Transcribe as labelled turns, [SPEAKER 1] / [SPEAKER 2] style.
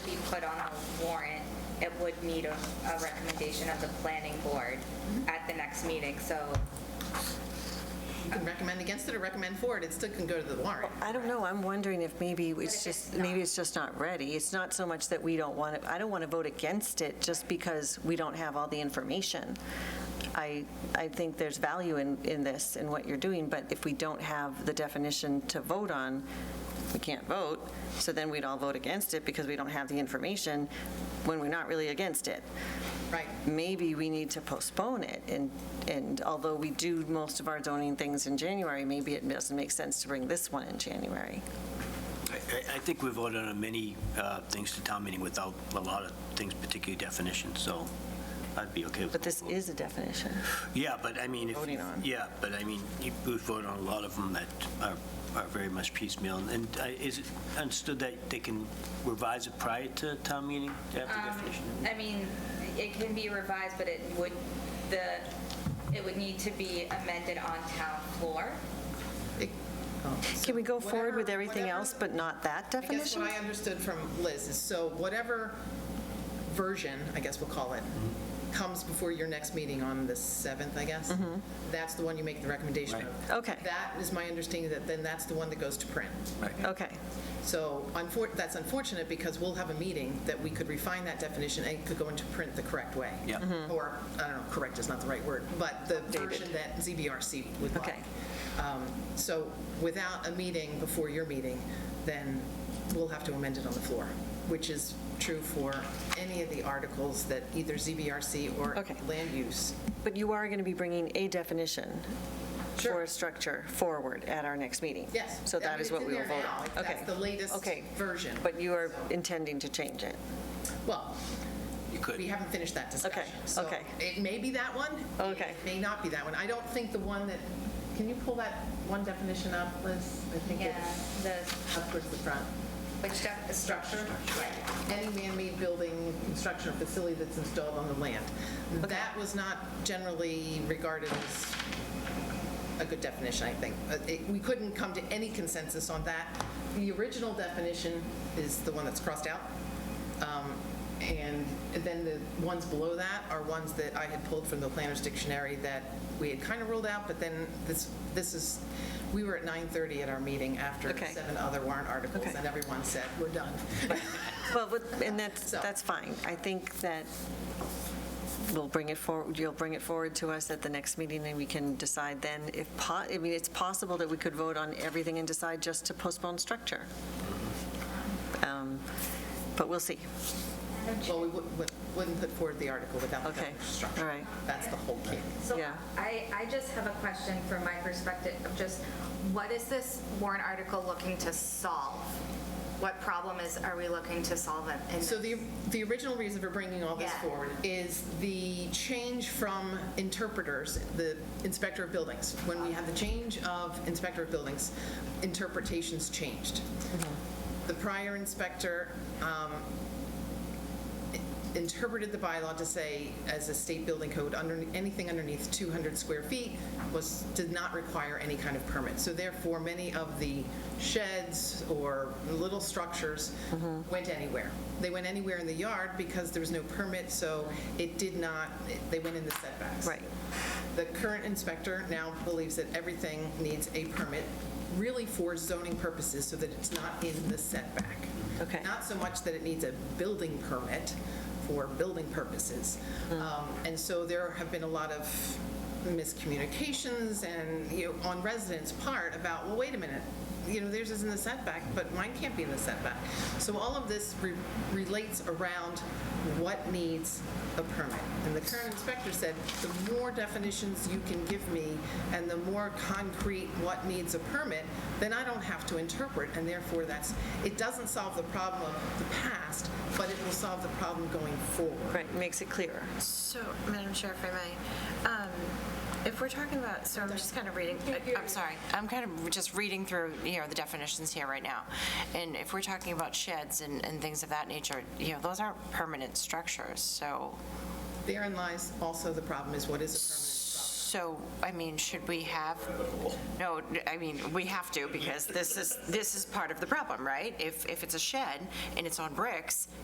[SPEAKER 1] put on a warrant, it would need a, a recommendation of the planning board at the next meeting, so
[SPEAKER 2] You can recommend against it or recommend for it, it still can go to the warrant.
[SPEAKER 3] I don't know, I'm wondering if maybe
[SPEAKER 1] if
[SPEAKER 3] it's
[SPEAKER 1] it's
[SPEAKER 3] just,
[SPEAKER 1] not-
[SPEAKER 3] maybe it's just not ready. It's not so much that we don't want it, I don't want to vote against it just because we don't have all the information. I, I think there's value in, in this and what you're doing, but if we don't have the definition to vote on, we can't vote, so then we'd all vote against it because we don't have the information when we're not really against it.
[SPEAKER 2] Right.
[SPEAKER 3] Maybe we need to postpone it, and, and although we do most of our zoning things in January, maybe it doesn't make sense to bring this one in January.
[SPEAKER 4] I- I I think we voted on many uh, things to town meeting without a lot of things, particularly definitions, so I'd be okay with.
[SPEAKER 3] But this
[SPEAKER 4] both.
[SPEAKER 3] is a definition.
[SPEAKER 4] Yeah, but I mean. if-
[SPEAKER 3] Voting on.
[SPEAKER 4] Yeah, but I mean, you- we voted on a lot of them that are are very much piecemeal, and I- is it understood that they can revise it prior to town meeting after definition?
[SPEAKER 1] um, I mean, it can be revised, but it would, the, it would need to be amended on town floor.
[SPEAKER 2] It- oh, so
[SPEAKER 3] Can we go forward with
[SPEAKER 2] whatever-
[SPEAKER 3] everything
[SPEAKER 2] whatever-
[SPEAKER 3] else, but not that
[SPEAKER 2] I guess
[SPEAKER 3] definition?
[SPEAKER 2] what I understood from Liz is, so whatever version, I guess we'll call it,
[SPEAKER 3] Mm-hmm.
[SPEAKER 2] comes before your next meeting on the 7th, I guess, that's the one you make the recommendation of.
[SPEAKER 3] Right. Okay.
[SPEAKER 2] That is my understanding, that then that's the one that goes to print.
[SPEAKER 3] Okay,
[SPEAKER 2] So unfor- that's unfortunate, because we'll have a meeting that we could refine that definition and it could go into print the correct way.
[SPEAKER 4] Yeah. Mhm.
[SPEAKER 3] Mm-hmm.
[SPEAKER 2] Or, I don't know, correct is not the right word, but the version that ZBRC would like.
[SPEAKER 3] Okay.
[SPEAKER 2] Um, So without a meeting before your meeting, then we'll have to amend it on the floor, which is true for any of the articles that either ZBRC or
[SPEAKER 3] Okay.
[SPEAKER 2] land use.
[SPEAKER 3] but you are going to be bringing a definition for a structure forward at our next meeting?
[SPEAKER 2] Yes.
[SPEAKER 3] So
[SPEAKER 2] I mean,
[SPEAKER 3] that is
[SPEAKER 2] it's
[SPEAKER 3] what
[SPEAKER 2] in
[SPEAKER 3] we will
[SPEAKER 2] there
[SPEAKER 3] vote
[SPEAKER 2] now.
[SPEAKER 3] on?
[SPEAKER 2] That's
[SPEAKER 3] Okay.
[SPEAKER 2] the latest
[SPEAKER 3] Okay.
[SPEAKER 2] version.
[SPEAKER 3] But you are intending to change it?
[SPEAKER 2] Well,
[SPEAKER 4] You could.
[SPEAKER 2] We haven't finished that discussion. So
[SPEAKER 3] okay.
[SPEAKER 2] it may be that one.
[SPEAKER 3] Okay.
[SPEAKER 2] It may not be that one. I don't think the one that, can you pull that one definition up, Liz? I think
[SPEAKER 1] Yeah,
[SPEAKER 2] it's
[SPEAKER 1] the,
[SPEAKER 2] up towards the front.
[SPEAKER 1] which def, the structure? Yeah.
[SPEAKER 2] Any man-made building, construction, or facility that's installed on the land. That was not generally regarded as a good definition, I think. Uh, it- We couldn't come to any consensus on that. The original definition is the one that's crossed out. Um, And then the ones below that are ones that I had pulled from the Planner's Dictionary that we had kind of ruled out, but then this, this is, we were at 9:30 at our meeting after
[SPEAKER 3] Okay.
[SPEAKER 2] seven other warrant articles,
[SPEAKER 3] Okay.
[SPEAKER 2] and everyone said, we're done.
[SPEAKER 3] Well, but- and that's,
[SPEAKER 2] So-
[SPEAKER 3] that's fine. I think that we'll bring it forward, you'll bring it forward to us at the next meeting, and we can decide then if, po- I mean, it's possible that we could vote on everything and decide just to postpone structure. Um, But we'll see.
[SPEAKER 2] Well, we wou- wou- wouldn't put forward the article without the
[SPEAKER 3] Okay,
[SPEAKER 2] definition structure.
[SPEAKER 3] all right.
[SPEAKER 2] That's the whole key.
[SPEAKER 1] So
[SPEAKER 3] Yeah.
[SPEAKER 1] I, I just have a question from my perspective of just, what is this warrant article looking to solve? What problem is, are we looking to solve it? in
[SPEAKER 2] So
[SPEAKER 1] this?
[SPEAKER 2] the, the original reason for bringing all this
[SPEAKER 1] Yeah.
[SPEAKER 2] forward is the change from interpreters, the inspector of buildings. When we had the change of inspector of buildings, interpretations changed. The prior inspector um, interpreted the bylaw to say, as a state building code, under, anything underneath 200 square feet was, did not require any kind of permit. So therefore, many of the sheds or little structures went anywhere. They went anywhere in the yard because there was no permit, so it did not, they went in the setbacks.
[SPEAKER 3] Right.
[SPEAKER 2] The current inspector now believes that everything needs a permit, really for zoning purposes, so that it's not in the setback.
[SPEAKER 3] Okay.
[SPEAKER 2] Not so much that it needs a building permit for building purposes. Um, And so there have been a lot of miscommunications and, you know, on residents' part about, well, wait a minute, you know, theirs is in the setback, but mine can't be in the setback. So all of this re- relates around what needs a permit. And the current inspector said, the more definitions you can give me and the more concrete what needs a permit, then I don't have to interpret, and therefore that's, it doesn't solve the problem of the past, but it will solve the problem going forward.
[SPEAKER 3] Right, makes it clearer.
[SPEAKER 5] So, Madam Chair, if I may, um, if we're talking about, so I'm just kind of reading, I'm sorry, I'm kind of just reading through, you know, the definitions here right now. And if we're talking about sheds and, and things of that nature, you know, those aren't permanent structures, so,
[SPEAKER 2] Therein lies also the problem is what is a permanent
[SPEAKER 5] so, I mean, should we have? No, I mean, we have to, because this is, this is part of the problem, right? If, if it's a shed and it's on bricks,